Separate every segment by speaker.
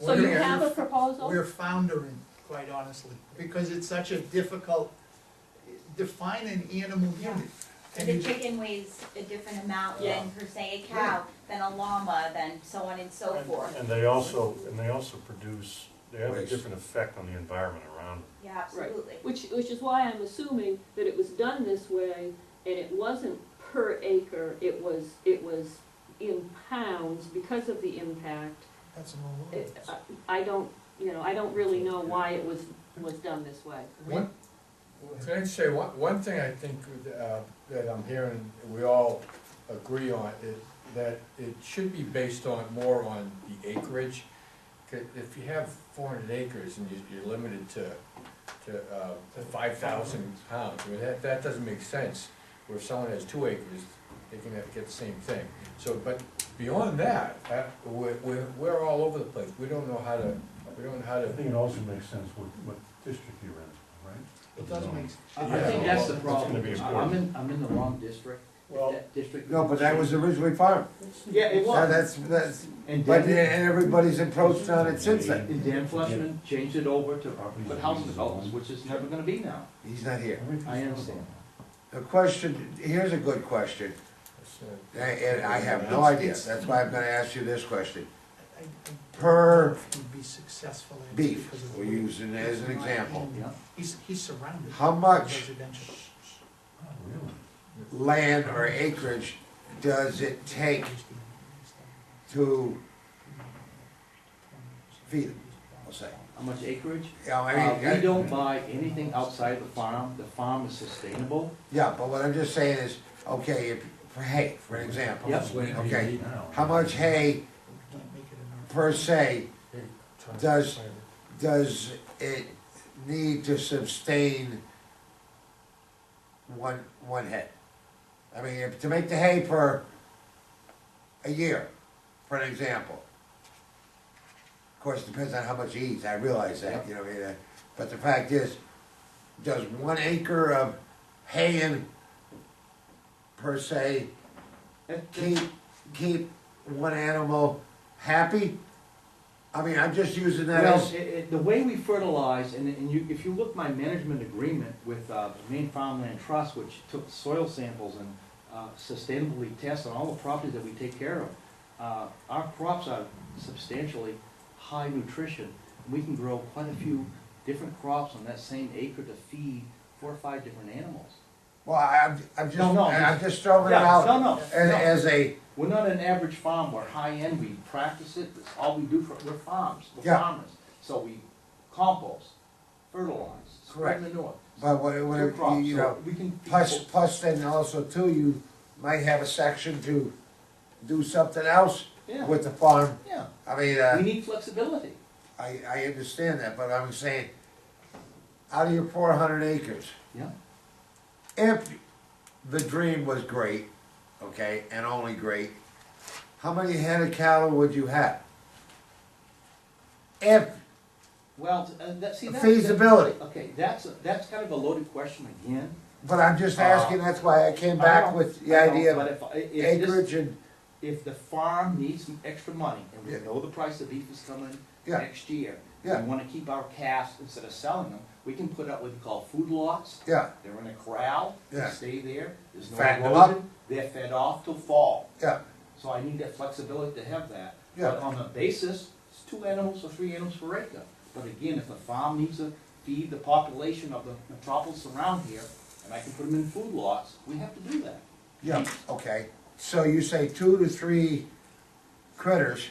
Speaker 1: So you
Speaker 2: We're-
Speaker 1: have a proposal?
Speaker 2: We're foundering, quite honestly, because it's such a difficult, define an animal unit.
Speaker 3: So
Speaker 2: And
Speaker 3: The
Speaker 2: you-
Speaker 3: chicken weighs a different amount
Speaker 1: Yeah.
Speaker 3: than per se a cow, than a llama, than so on and so
Speaker 2: Right.
Speaker 3: forth.
Speaker 4: And they also, and they also produce, they have a
Speaker 5: Waste.
Speaker 4: different effect on the environment around them.
Speaker 3: Yeah, absolutely.
Speaker 1: Which, which is why I'm assuming that it was done this way, and it wasn't per acre, it was, it was in pounds because of the impact.
Speaker 2: That's an old
Speaker 1: It- uh,
Speaker 2: ordinance.
Speaker 1: I- I don't, you know, I don't really know why it was, was done this way.
Speaker 6: One,
Speaker 2: Go ahead.
Speaker 6: can I just say, one, one thing I think uh, that I'm hearing, we all agree on, is that it should be based on, more on the acreage. 'Cause If you have four hundred acres and you- you're limited to, to, uh, five thousand pounds, I mean, that, that doesn't make sense. Where if someone has two acres, they can have- get the same thing. So, but beyond that, uh, we're, we're, we're all over the place, we don't know how to, we don't know how
Speaker 4: I
Speaker 6: to.
Speaker 4: think it also makes sense what, what district you're in, right?
Speaker 2: It doesn't make,
Speaker 7: I I think
Speaker 6: Yeah.
Speaker 7: that's the
Speaker 6: It's
Speaker 4: gonna
Speaker 7: problem,
Speaker 4: be
Speaker 7: I- I'm in, I'm in the wrong district, If
Speaker 4: Well-
Speaker 7: that district.
Speaker 5: No, but that was originally farm.
Speaker 7: Yeah, it
Speaker 5: Now,
Speaker 7: was,
Speaker 5: that's, that's,
Speaker 7: and
Speaker 5: but yeah,
Speaker 7: Dan,
Speaker 5: and everybody's approached on it since then.
Speaker 7: and Dan Fleshman changed it over to,
Speaker 4: Properties
Speaker 7: but
Speaker 4: and
Speaker 7: housing
Speaker 4: uses
Speaker 7: developments,
Speaker 4: alone.
Speaker 7: which it's never gonna be now.
Speaker 5: He's not here.
Speaker 4: Everything's
Speaker 7: I understand.
Speaker 5: The question, here's a good question,
Speaker 6: It's,
Speaker 5: and- and I have no idea, that's why I'm gonna ask you this question.
Speaker 2: I, I
Speaker 5: Per
Speaker 2: would be successful at it
Speaker 5: beef,
Speaker 2: because of the
Speaker 5: we're
Speaker 2: way-
Speaker 5: using it as an example.
Speaker 7: Yeah.
Speaker 2: He's, he's surrounded.
Speaker 5: How
Speaker 2: by
Speaker 5: much
Speaker 2: Residential.
Speaker 4: Oh, really?
Speaker 5: land or acreage does it take to, Feed it, I'll say?
Speaker 7: How much acreage?
Speaker 5: You know, I
Speaker 7: Uh,
Speaker 5: mean,
Speaker 7: we don't buy anything outside the farm, the farm is sustainable,
Speaker 5: Yeah, but what I'm just saying is, okay, if, for hay, for example.
Speaker 7: Yep.
Speaker 5: Okay,
Speaker 4: Now.
Speaker 5: how much hay
Speaker 2: Can't make it an R-
Speaker 5: per se Does- does it need to sustain one, one head? I mean, if, to make the hay for a year, for an example. Of course, it depends on how much he eats, I realize that, you know, I mean, uh, but the fact is, does one acre of hay in per se
Speaker 7: That-
Speaker 5: keep, keep one animal happy? I mean, I'm just using that
Speaker 7: Well,
Speaker 5: as,
Speaker 7: it, it, the way we fertilize, and, and you, if you look my management agreement with, uh, the Maine Farmland Trust, which took soil samples and, uh, sustainably tests on all the properties that we take care of, uh, our crops are substantially high nutrition. We can grow quite a few different crops on that same acre to feed four or five different animals.
Speaker 5: well, I'm, I'm just,
Speaker 7: No, no,
Speaker 5: I'm just throwing it
Speaker 7: Yeah,
Speaker 5: out.
Speaker 7: No, no,
Speaker 5: As,
Speaker 7: no.
Speaker 5: as a,
Speaker 7: We're not an average farm, we're high-end, we practice it, that's all we do, for we're farms, we're
Speaker 5: Yeah.
Speaker 7: farmers. So we compost, fertilize, spread
Speaker 5: Correct.
Speaker 7: manure.
Speaker 5: but what, what,
Speaker 7: two
Speaker 5: if you
Speaker 7: crops,
Speaker 5: you
Speaker 7: so
Speaker 5: know,
Speaker 7: we can.
Speaker 5: plus, plus then also too, you might have a section to do something else
Speaker 7: Yeah,
Speaker 5: with the farm.
Speaker 7: yeah,
Speaker 5: I mean,
Speaker 7: we
Speaker 5: uh,
Speaker 7: need flexibility.
Speaker 5: I, I understand that, but I'm saying, out of your four hundred acres,
Speaker 7: Yeah,
Speaker 5: if the dream was great, okay, and only great, how many head of cattle would you have? If
Speaker 7: well, t- uh, that, see, that's.
Speaker 5: feasibility,
Speaker 7: Okay, that's, a- that's kind of a loaded question again.
Speaker 5: but I'm just asking, that's why I came
Speaker 7: Uh, I
Speaker 5: back
Speaker 7: know,
Speaker 5: with the
Speaker 7: I know,
Speaker 5: idea
Speaker 7: but
Speaker 5: of
Speaker 7: if I- if this-
Speaker 5: acreage and
Speaker 7: If the farm needs some extra money, and we
Speaker 5: Yeah.
Speaker 7: know the price of beef is coming
Speaker 5: Yeah.
Speaker 7: next year.
Speaker 5: Yeah.
Speaker 7: We wanna keep our calves, instead of selling them, we can put up what we call food lots.
Speaker 5: Yeah,
Speaker 7: They're in a corral, they
Speaker 5: Yeah.
Speaker 7: stay there, there's no
Speaker 5: Fatten them up.
Speaker 7: erosion, they're fed off till fall.
Speaker 5: yeah,
Speaker 7: So I need that flexibility to have that.
Speaker 5: Yeah.
Speaker 7: But on the basis, it's two animals or three animals per acre. But again, if the farm needs to feed the population of the metropolis around here, and I can put them in food lots, we have to do that.
Speaker 5: yeah, okay. So you say two to three critters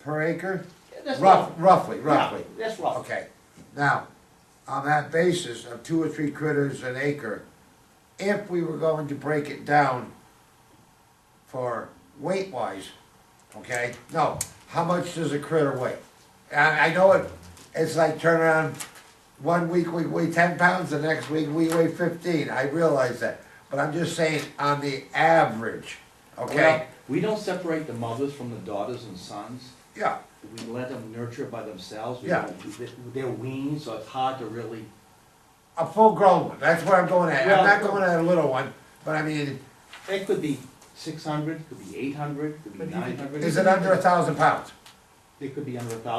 Speaker 5: per acre?
Speaker 7: Yeah, That's
Speaker 5: Rough, roughly,
Speaker 7: Yeah,
Speaker 5: roughly.
Speaker 7: That's roughly.
Speaker 5: Okay, now, on that basis of two or three critters an acre, if we were going to break it down for weight wise, okay, no, how much does a critter weigh? I, I know it, it's like turn around, one week we weigh ten pounds, the next week we weigh fifteen, I realize that. But I'm just saying, on the average,
Speaker 7: Well,
Speaker 5: okay,
Speaker 7: we don't separate the mothers from the daughters and sons.
Speaker 5: yeah,
Speaker 7: we let them nurture by themselves. We
Speaker 5: Yeah.
Speaker 7: don't- they- They're weaned, so it's hard to really,
Speaker 5: a full grown one, that's where I'm going at, I'm not
Speaker 7: Well-
Speaker 5: going at a little one, but I mean,
Speaker 7: it could be six hundred, could be eight hundred, could be
Speaker 2: But you could-
Speaker 7: nine hundred.
Speaker 5: Is it under a thousand pounds?
Speaker 7: It could be under a thousand.